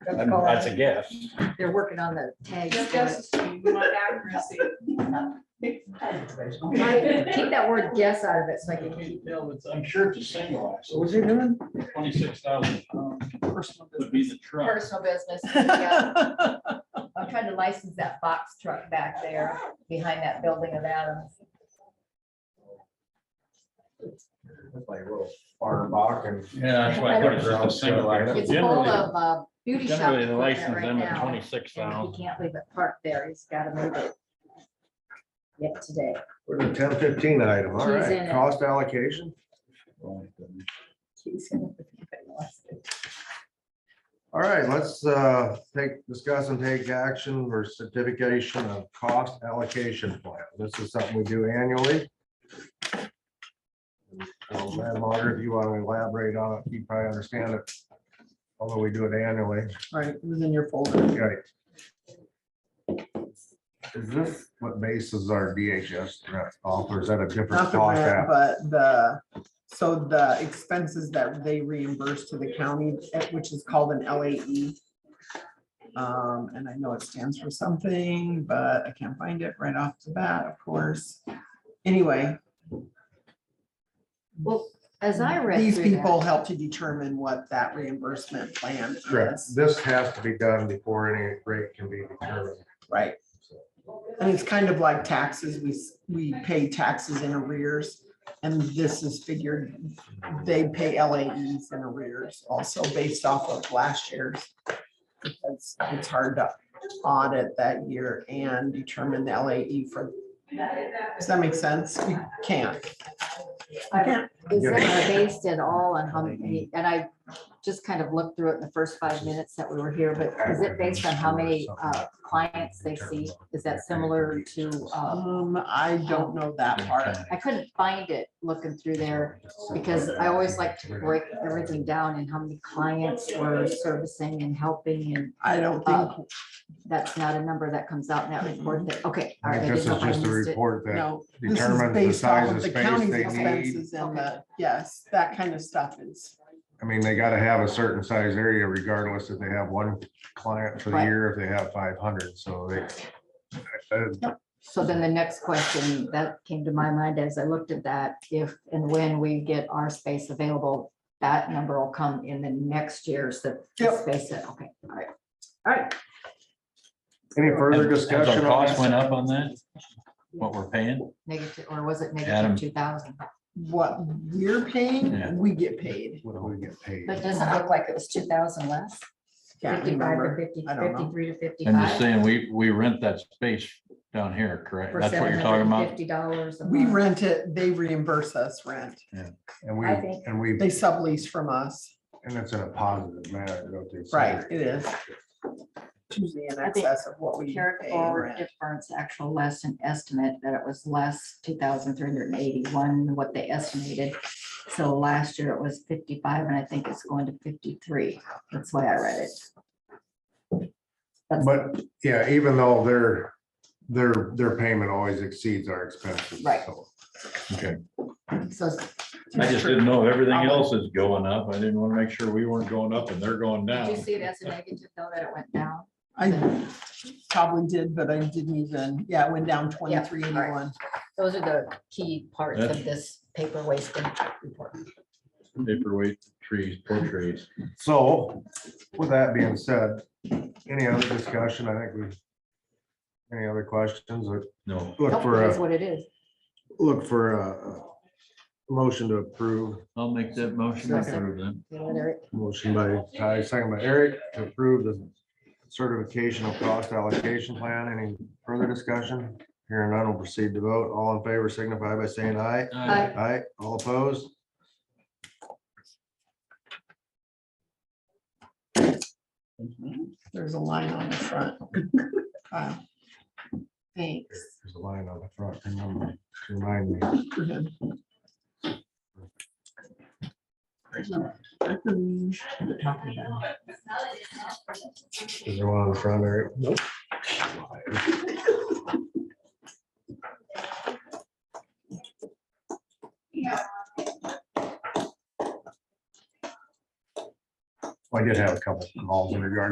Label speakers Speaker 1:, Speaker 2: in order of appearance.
Speaker 1: That's
Speaker 2: I'm-
Speaker 1: called-
Speaker 2: That's a guess.
Speaker 1: They're working on the tags.
Speaker 3: Just
Speaker 1: for it.
Speaker 3: guess, we want accuracy.
Speaker 1: Keep that word guess out of it so I can keep.
Speaker 4: I'm sure it's a single axle,
Speaker 2: was he doing?
Speaker 4: twenty-six thousand pounds would be the truck.
Speaker 1: Personal business. yeah. I'm trying to license that box truck back there behind that building of Adams.
Speaker 5: Like a little farm box and
Speaker 2: Yeah, that's why I put it just a single. axle.
Speaker 1: It's full
Speaker 2: Generally,
Speaker 1: of uh, beauty shop
Speaker 2: generally the
Speaker 1: equipment
Speaker 2: license
Speaker 1: right
Speaker 2: them at
Speaker 1: now. and
Speaker 2: twenty-six
Speaker 1: He
Speaker 2: thousand.
Speaker 1: can't leave it parked there. He's gotta move it. Yet today.
Speaker 5: with a ten fifteen item, all
Speaker 1: Keys in
Speaker 5: right,
Speaker 1: it.
Speaker 5: cost allocation.
Speaker 1: He's gonna- if he wants to.
Speaker 5: All right, let's uh take, discuss and take action for certification of cost allocation plan. This is something we do annually. So, Madam Auditor, if you want to elaborate on it, you probably understand it, although we do it annually.
Speaker 6: Right, it was in your folder.
Speaker 5: Right. Is this what bases our DHS threat off, or is that a different
Speaker 6: Not the
Speaker 5: cost
Speaker 6: grant,
Speaker 5: app?
Speaker 6: but the, so the expenses that they reimburse to the county, eh, which is called an LAE. Um, and I know it stands for something, but I can't find it right off the bat, of course. Anyway,
Speaker 1: Well, as I read.
Speaker 6: these
Speaker 1: through that-
Speaker 6: people help to determine what that reimbursement plan
Speaker 5: Correct,
Speaker 6: is,
Speaker 5: this has to be done before any rate can be determined.
Speaker 6: right? And it's kind of like taxes, we, s- we pay taxes in arrears, and this is figured, they pay LAEs in arrears also based off of last year's. It's, it's hard to audit that year and determine the LAE for, does that make sense? You can't.
Speaker 1: Is
Speaker 5: Yeah.
Speaker 1: that based at all on how many, and I just kind of looked through it in the first five minutes that we were here, but is it based on how many uh, clients they see? Is that similar to, uh,
Speaker 6: Um, I don't know that part.
Speaker 1: I couldn't find it looking through there because I always like to break everything down and how many clients we're servicing and helping and uh,
Speaker 6: I don't
Speaker 5: Uh,
Speaker 6: think,
Speaker 1: that's not a number that comes out in that report that, okay. all right, I
Speaker 5: This
Speaker 1: didn't know if
Speaker 5: is
Speaker 1: I
Speaker 5: just a
Speaker 1: missed it.
Speaker 5: report that
Speaker 6: no. This is
Speaker 5: determines the
Speaker 6: based off
Speaker 5: size
Speaker 6: of
Speaker 5: of
Speaker 6: the
Speaker 5: space
Speaker 6: counties'
Speaker 5: they need.
Speaker 6: expenses and the, yes, that kind of stuff is,
Speaker 5: I mean, they gotta have a certain size area regardless if they have one client for the
Speaker 1: Right.
Speaker 5: year, if they have five hundred, so they. uh,
Speaker 1: So then the next question that came to my mind as I looked at that, if and when we get our space available, that number will come in the next year's that the
Speaker 6: Yep.
Speaker 1: space that, okay, all right. All right,
Speaker 5: Any further
Speaker 2: Has- has our
Speaker 5: discussion on
Speaker 2: Cost
Speaker 5: that?
Speaker 2: went up on that, what we're paying?
Speaker 1: negative, or was it
Speaker 2: Adam.
Speaker 1: negative two thousand?
Speaker 6: what we're
Speaker 2: Yeah.
Speaker 6: paying, we get paid.
Speaker 5: What do we get paid?
Speaker 1: But it doesn't look like it was two thousand less,
Speaker 6: Can't
Speaker 1: fifty-five or
Speaker 6: remember.
Speaker 1: 50
Speaker 6: I
Speaker 1: 53
Speaker 6: don't know.
Speaker 1: to
Speaker 2: I'm just
Speaker 1: fifty-five.
Speaker 2: saying, we, we rent that space down here, correct?
Speaker 1: for
Speaker 2: That's what you're talking about?
Speaker 1: Fifty dollars.
Speaker 6: We rent it, they reimburse us rent.
Speaker 5: And we,
Speaker 1: I think-
Speaker 5: and we,
Speaker 6: They sublease from us.
Speaker 5: and it's in a positive manner, don't they? say?
Speaker 6: Right, it is. Usually in
Speaker 1: I think
Speaker 6: excess of what we
Speaker 1: Carried
Speaker 6: pay
Speaker 1: forward
Speaker 6: rent.
Speaker 1: difference, actual less than estimate, that it was less two thousand three hundred and eighty-one, what they estimated. So last year it was fifty-five, and I think it's going to fifty-three. That's why I read it. That's-
Speaker 5: But, yeah, even though their, their, their payment always exceeds our expenses.
Speaker 1: Right.
Speaker 5: so.
Speaker 2: Okay.
Speaker 1: So
Speaker 2: I just didn't know if everything else is going up. I didn't want to make sure we weren't going up and they're going
Speaker 1: did you
Speaker 2: down.
Speaker 1: see that's a negative though, that it went down?
Speaker 6: I probably did, but I didn't even, yeah, it went down twenty-three eighty-one.
Speaker 1: Those are the key parts
Speaker 2: That's-
Speaker 1: of this paper wasting report.
Speaker 2: Paperweight, trees, poor trees.
Speaker 5: So with that being said, any other discussion? I think we. Any other questions or
Speaker 2: No,
Speaker 5: look
Speaker 1: Nope,
Speaker 5: for
Speaker 1: It is
Speaker 5: a,
Speaker 1: what it is.
Speaker 5: look for a a motion to approve.
Speaker 2: I'll make that motion. to approve then.
Speaker 1: You know, Eric?
Speaker 5: Motion by Ty, second by Eric to approve the certification of cost allocation plan. Any further discussion? Hearing none, will proceed to vote. All in favor signify by saying aye.
Speaker 1: Aye.
Speaker 5: Aye, all opposed?
Speaker 6: There's a line on the front. Wow. Thanks.
Speaker 5: There's a line on the front. remember, to Remind me. Is there one on the front, Eric? Nope. I did have a couple calls in regard